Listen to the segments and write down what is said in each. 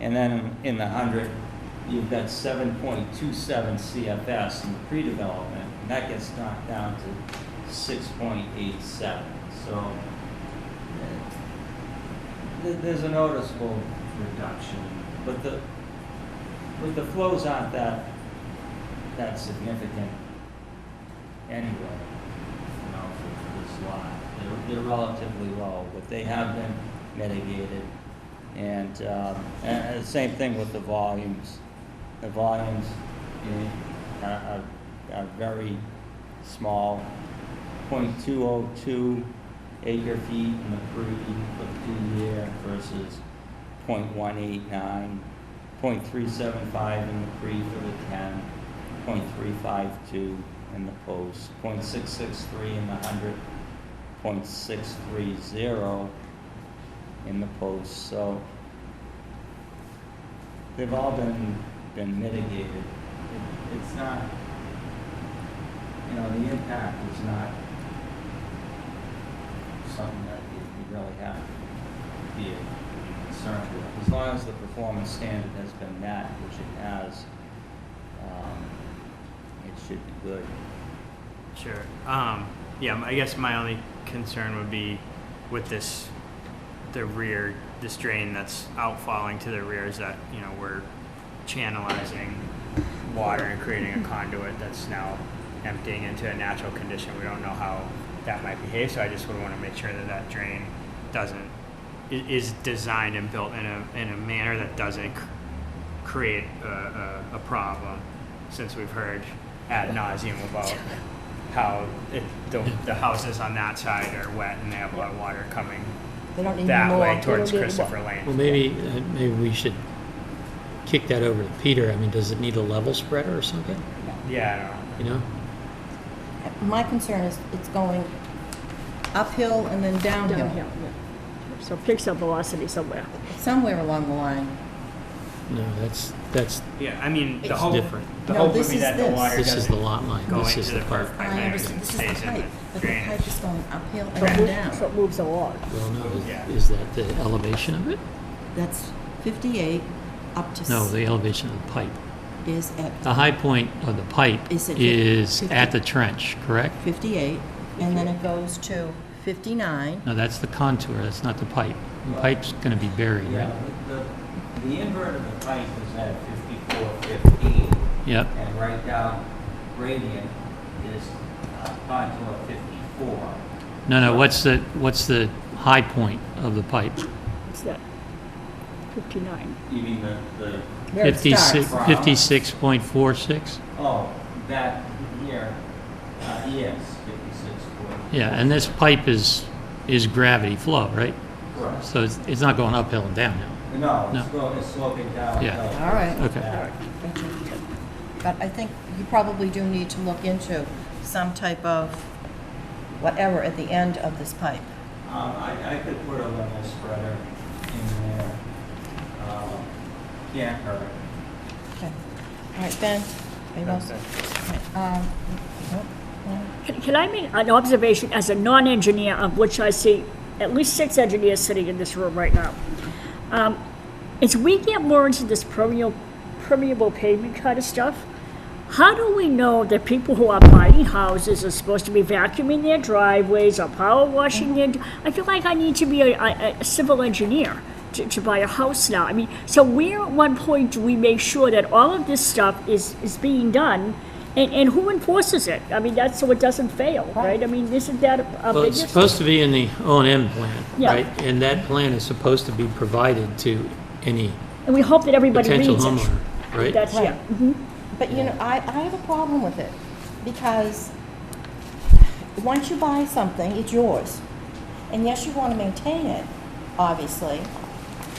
And then in the hundred, you've got seven point two seven CFS in the pre-development, and that gets knocked down to six point eight seven, so. uh, th- There's a noticeable reduction, but the, but the flows aren't that, that significant anyway, you know, for this lot. They're, they're relatively low, but they have been mitigated. And, um, and, and the same thing with the volumes. The volumes, you know, are, are, are very small, 0.202 acre feet in the pre for two year versus 0.189, 0.375 in the pre for the ten, 0.352 in the post, 0.663 in the hundred, 0.630 in the post, so they've all been, been mitigated. It- It's not, you know, the impact is not something that you you really have to be concerned with. As long as the performance standard has been met, which it has, um, it should be good. Sure. Um, yeah, I guess my only concern would be with this, the rear, this drain that's outfalling to the rear is that, you know, we're channelizing water and creating a conduit that's now emptying into a natural condition. We don't know how that might behave, so I just would want to make sure that that drain doesn't, i- is designed and built in a, in a manner that doesn't c- create a, a, a problem, since we've heard ad nauseum about how it, the, the houses on that side are wet and they have a lot of water coming They don't need that more. way They towards don't need Christopher more. Lane. Well, maybe, uh, maybe we should kick that over to Peter. I mean, does it need a level spreader or something? Yeah, You know? My concern is it's going uphill and then Downhill, downhill, yeah. So fix up velocity somewhere. somewhere along the line. No, that's, that's, I don't know. Yeah, I mean, the It's hope, different. the No, hope would this be is that the this. water this is the doesn't lot line. go This is into the the part. park pipeline I and understand, this is the stays in pipe, the but the pipe is drainage. going uphill So it and moves- so it down. moves along. Well, Yeah. no, is that the elevation of it? That's 58 up to. No, Ah. s- the elevation of the pipe. Is at The high point of the pipe Is it is fifty? at the trench, correct? 58, and then it goes to 59. No, that's the contour, that's not the pipe. The pipe's gonna be buried, Yeah, right? the, the invert of the pipe is at fifty-four fifteen, Yep, and right down gradient is uh, contour fifty-four. no, no, what's the, what's the high point of the pipe? It's that 59. You mean the, the, Where it starts. from. Fifty-six point four six? oh, that here, uh, yes, fifty-six foot. Yeah, and this pipe is, is gravity flow, right? Correct. So it's, it's not going uphill and downhill. No, it's No. going, it's sloping down. Yeah. All right. Okay. But I think you probably do need to look into some type of whatever at the end of this pipe. Um, I, I could put a level spreader in there. Um, Can't hurt. Okay. All right, Ben, are you all set? Okay, um, nope, no. Can can I make an observation as a non-engineer, of which I see at least six engineers sitting in this room right now? Um, As we get more into this permeable, permeable pavement kind of stuff, how do we know that people who are buying houses are supposed to be vacuuming their driveways or power washing their, I feel like I need to be a, a, a civil engineer to, to buy a house now. I mean, so where at one point do we make sure that all of this stuff is, is being done? And, and who enforces it? I mean, that's so it doesn't fail, right? I mean, isn't that a a Well, it's biggest? supposed to be in the O and M plan, Yeah. right? And that plan is supposed to be provided to any And we hope that everybody reads potential it. homeowner, right? That's, yeah. But you know, I, I have a problem with it because once you buy something, it's yours. And yes, you want to maintain it, obviously,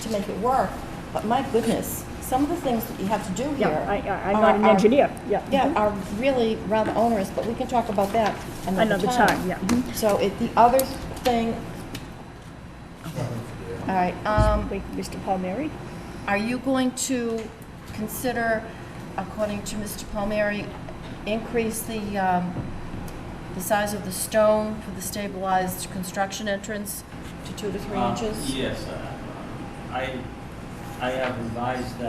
to make it work. But my goodness, some of the things that you have to do here. Yeah, I, I- I'm are- not an are- engineer, Mm-hmm. yeah. Uh, Yeah, are really rather onerous, but we can talk about that another Another time. time, yeah. Mhm. So it, the other thing. All right, um, Wait, Mr. Palmieri? are you going to consider, according to Mr. Palmieri, increase the, um, the size of the stone for the stabilized construction entrance to two to three Um, inches? Yes, I- I I have revised that